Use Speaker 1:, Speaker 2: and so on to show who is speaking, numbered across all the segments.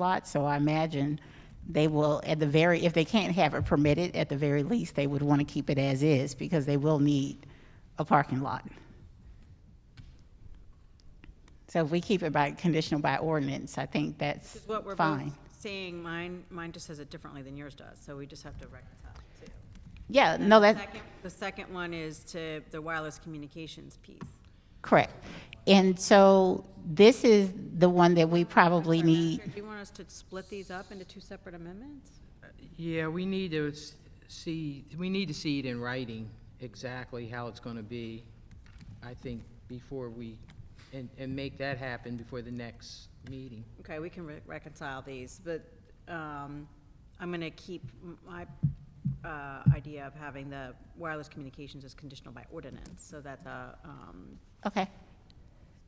Speaker 1: lot, so I imagine they will, at the very, if they can't have it permitted, at the very least, they would want to keep it as is, because they will need a parking lot. So if we keep it by, conditional by ordinance, I think that's
Speaker 2: Is what we're both
Speaker 1: fine.
Speaker 2: saying, mine, mine just says it differently than yours does, so we just have to reconcile the two.
Speaker 1: Yeah, no,
Speaker 2: The
Speaker 1: that's
Speaker 2: second- The second one is to the wireless communications piece.
Speaker 1: correct. And so this is the one that we probably need,
Speaker 2: Sure, Do you want us to split these up into two separate amendments?
Speaker 3: Yeah, we need to s- see, we need to see it in writing, exactly how it's gonna be, I think, before we, and, and make that happen before the next meeting.
Speaker 2: Okay, we can re- reconcile these, but um, I'm going to keep m- my uh, idea of having the wireless communications as conditional by ordinance, so that's a, um,
Speaker 1: okay.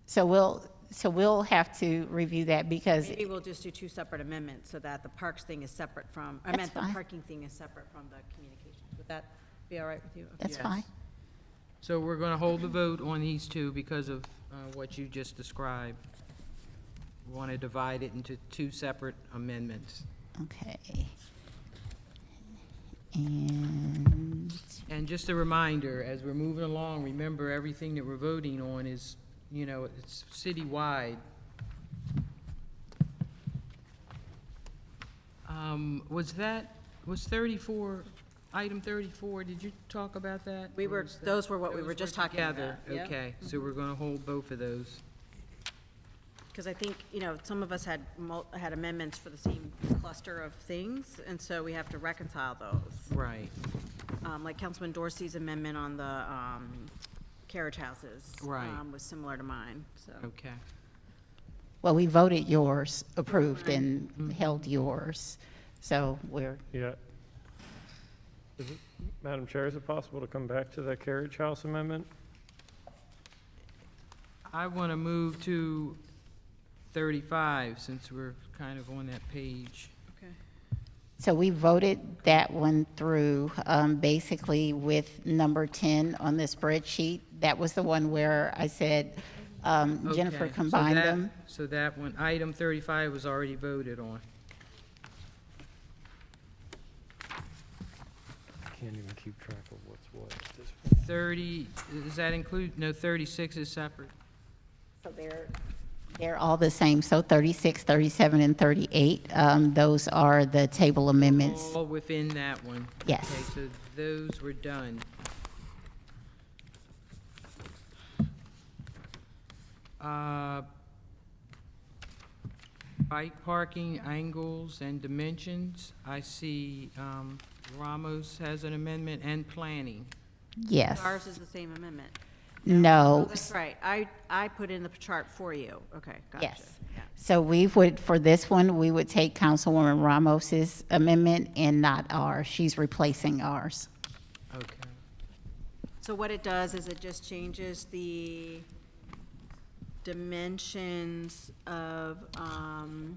Speaker 1: So we'll, so we'll have to review that because
Speaker 2: maybe we'll just do two separate amendments, so that the parks thing is separate from, I
Speaker 1: That's
Speaker 2: meant the
Speaker 1: fine.
Speaker 2: parking thing is separate from the communications. Would that be all right with you? Okay.
Speaker 1: that's fine.
Speaker 3: So we're gonna hold the vote on these two because of, uh, what you just described. Wanna divide it into two separate amendments.
Speaker 1: Okay. And,
Speaker 3: And just a reminder, as we're moving along, remember, everything that we're voting on is, you know, it's citywide. Um, was that, was thirty-four, item thirty-four, did you talk about that?
Speaker 2: We
Speaker 3: Or
Speaker 2: were,
Speaker 3: was that-
Speaker 2: those were what we
Speaker 3: those
Speaker 2: were just talking about. Mm-hmm.
Speaker 3: together? Okay, so we're gonna hold both of those.
Speaker 2: Because I think, you know, some of us had, mul- had amendments for the same cluster of things, and so we have to reconcile those.
Speaker 3: Right,
Speaker 2: Um, Like Councilman Dorsey's amendment on the um, carriage houses.
Speaker 3: Right.
Speaker 2: um, Was similar to mine, so.
Speaker 3: okay.
Speaker 1: well, we voted yours approved and held yours, so we're,
Speaker 4: Yeah. Is it- Madam Chair, is it possible to come back to that carriage house amendment?
Speaker 3: I wanna move to thirty-five, since we're kind of on that page.
Speaker 2: Okay.
Speaker 1: so we voted that one through, um, basically with number ten on the spreadsheet. That was the one where I said, um, Jennifer
Speaker 3: Okay, so
Speaker 1: combined
Speaker 3: that-
Speaker 1: them.
Speaker 3: So that one, item 35 was already voted on.
Speaker 4: Can't even keep track of what's what at this
Speaker 3: 30, does that include, no, 36 is separate.
Speaker 1: So they're, they're all the same, so 36, 37, and 38, um, those are the table amendments.
Speaker 3: All within that one.
Speaker 1: Yes.
Speaker 3: Okay, so those were done. Uh, Bike parking angles and dimensions, I see um, Ramos has an amendment and planning.
Speaker 1: Yes.
Speaker 2: Ours is the same amendment. Oh,
Speaker 1: No.
Speaker 2: That's right. I, I put in the chart for you. Okay, gotcha.
Speaker 1: Yes.
Speaker 2: Yeah.
Speaker 1: So we would, for this one, we would take Councilwoman Ramos's amendment and not ours. She's replacing ours.
Speaker 3: Okay.
Speaker 2: So what it does is it just changes the dimensions of, um,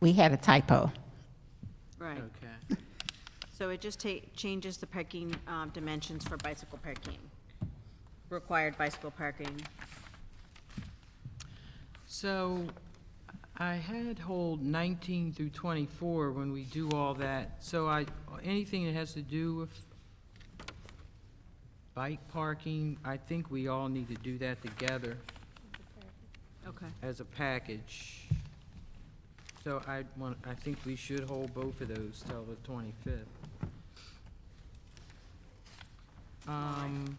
Speaker 1: We had a typo.
Speaker 2: right.
Speaker 3: Okay.
Speaker 2: So it just ta- changes the parking, um, dimensions for bicycle parking, required bicycle parking.
Speaker 3: So I had hold 19 through 24 when we do all that. So I, anything that has to do with bike parking, I think we all need to do that together
Speaker 2: Okay.
Speaker 3: as a package. So I want, I think we should hold both of those till the 25th. Um,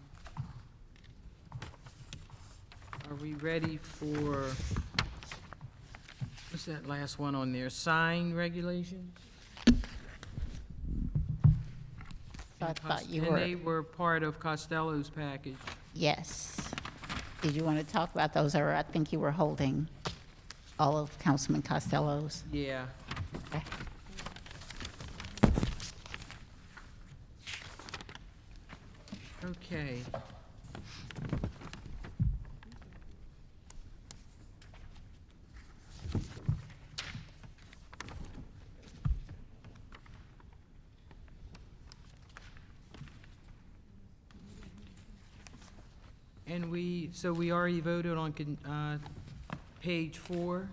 Speaker 3: Are we ready for, what's that last one on there, sign regulations?
Speaker 1: So I thought you
Speaker 3: And they
Speaker 1: were,
Speaker 3: were part of Costello's package.
Speaker 1: yes. Did you want to talk about those, or I think you were holding all of Councilman Costello's?
Speaker 3: Yeah.
Speaker 1: Okay.
Speaker 3: Okay. And we, so we already voted on con- uh, page four.